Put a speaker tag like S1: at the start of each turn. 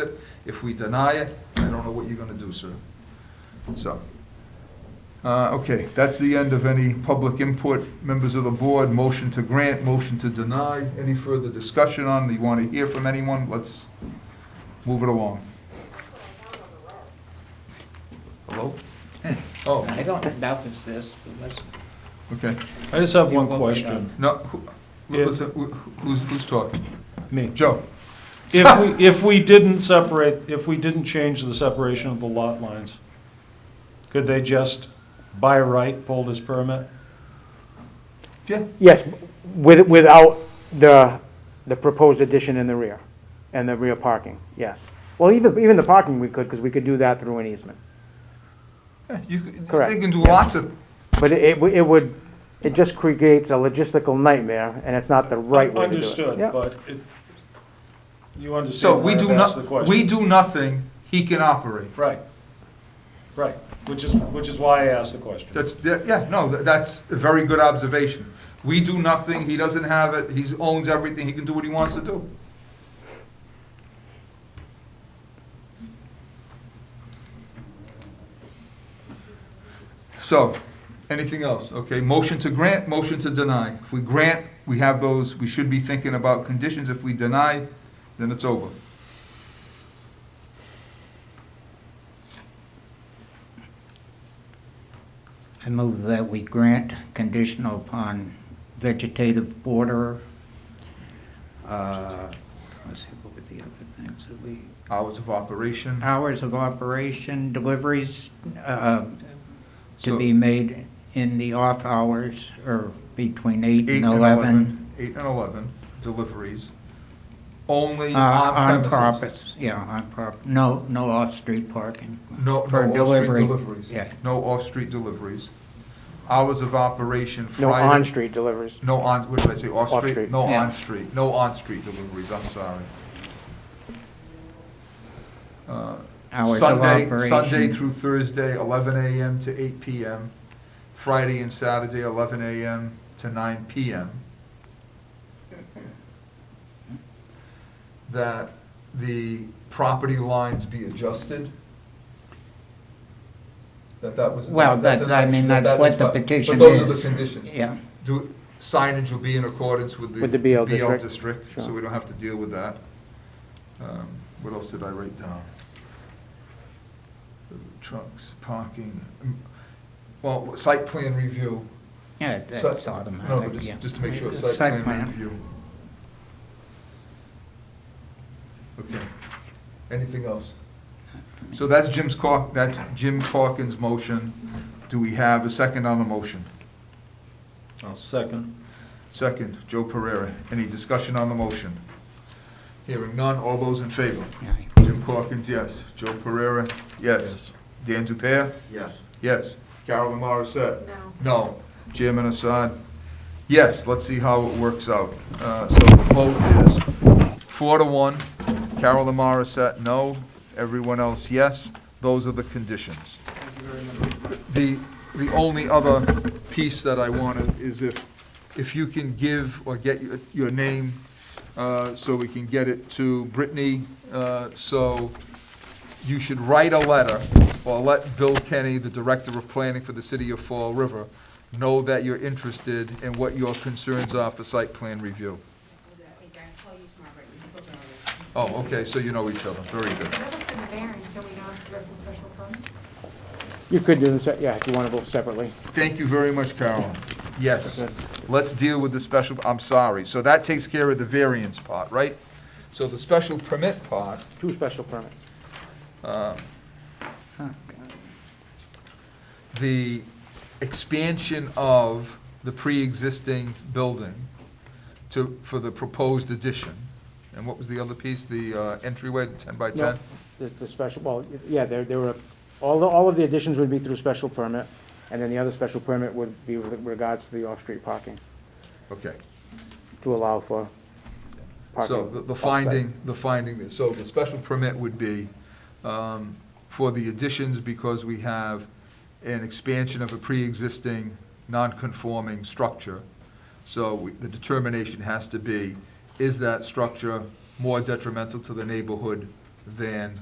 S1: it. If we deny it, I don't know what you're gonna do, sir. So, uh, okay, that's the end of any public input. Members of the board, motion to grant, motion to deny. Any further discussion on, you wanna hear from anyone? Let's move it along. Hello? Oh,
S2: I don't doubt it's this, but let's.
S1: okay.
S3: I just have one
S2: It won't be done.
S3: question.
S1: No, who,
S3: Yeah.
S1: listen, who- who's, who's talking?
S3: Me.
S1: Joe?
S3: If we, if we didn't separate, if we didn't change the separation of the lot lines, could they just by right pull this permit?
S1: Yeah.
S4: Yes, with, without the, the proposed addition in the rear, and the rear parking, yes. Well, even, even the parking we could, because we could do that through an easement.
S1: You, c- they
S4: Correct.
S1: can do lots of,
S4: But it, it would- it would, it just creates a logistical nightmare, and it's not the right way to do it.
S3: Understood,
S4: Yeah.
S3: but it, you
S1: so
S3: understand why
S1: we do
S3: I've asked the
S1: not,
S3: question?
S1: we do nothing, he can operate.
S3: Right, right, which is, which is why I asked the question.
S1: That's, that- yeah, no, tha- that's a very good observation. We do nothing, he doesn't have it, he owns everything, he can do what he wants to do. So, anything else? Okay, motion to grant, motion to deny. If we grant, we have those, we should be thinking about conditions. If we deny, then it's over.
S2: I move that we grant conditional upon vegetative border. uh, Let's see, what were the other things that we,
S1: Hours of operation.
S2: hours of operation, deliveries uh,
S1: So-
S2: to be made in the off hours or between eight
S1: Eight
S2: and eleven.
S1: Eight and eleven, deliveries, only
S2: uh,
S1: on
S2: On
S1: premises.
S2: purpose, yeah, on purpose, no, no off-street parking.
S1: No,
S2: For
S1: no off-street
S2: delivery,
S1: deliveries.
S2: yeah.
S1: No off-street deliveries. Hours of operation
S4: No
S1: Friday.
S4: on-street deliveries.
S1: No on, what did I say, off-street?
S4: Off-street.
S1: No
S2: Yeah.
S1: on-street, no on-street deliveries, I'm sorry. Uh,
S2: Hours of
S1: Sunday,
S2: operation.
S1: Sunday through Thursday, eleven AM to eight PM. Friday and Saturday, eleven AM to nine PM. That the property lines be adjusted. That that was.
S2: Well,
S1: that's
S2: that- I
S1: an
S2: mean,
S1: action,
S2: that's
S1: that
S2: what
S1: is
S2: the
S1: my-
S2: petition
S1: But those are the
S2: is.
S1: conditions.
S2: Yeah.
S1: Do, signage will be in accordance with the.
S4: With the BL district.
S1: district, so
S4: Sure.
S1: we don't have to deal with that. Um, What else did I write down? Trucks, parking, mm, well, site plan review.
S2: Yeah,
S1: Site-
S2: that's
S1: No, but
S2: automatic, yeah.
S1: just, just to make sure,
S2: It's
S1: site plan review. Okay, anything else? So that's Jim's Cork, that's Jim Corkins' motion. Do we have a second on the motion?
S3: I'll second.
S1: Second, Joe Pereira. Any discussion on the motion? Hearing none, all those in favor?
S2: Yeah.
S1: Jim Corkins, yes. Joe Pereira, yes. Dan Dupere?
S5: Yes.
S1: Yes. Carolyn Morissette?
S6: No.
S1: No. Chairman Assad? Yes, let's see how it works out. Uh, So the vote is four to one. Carolyn Morissette, no. Everyone else, yes. Those are the conditions. The, the only other piece that I wanted is if, if you can give or get your, your name, uh, so we can get it to Brittany, uh, so you should write a letter or let Bill Kenny, the Director of Planning for the City of Fall River, know that you're interested and what your concerns are for site plan review. Oh, okay, so you know each other, very good.
S4: You could do them, se- yeah, if you want to vote separately.
S1: Thank you very much, Carolyn. Yes, let's deal with the special, I'm sorry, so that takes care of the variance part, right? So the special permit part,
S4: Two special permits.
S1: the expansion of the pre-existing building to, for the proposed addition, and what was the other piece, the uh, entryway, the ten by
S4: No,
S1: ten?
S4: The, the special, well, yeah, there, there were, all, the- all of the additions would be through special permit, and then the other special permit would be with regards to the off-street parking,
S1: Okay,
S4: to allow for parking.
S1: so the- the
S4: off-site.
S1: finding, the finding, is- so the special permit would be um, for the additions because we have an expansion of a pre-existing non-conforming structure. So we- the determination has to be, is that structure more detrimental to the neighborhood than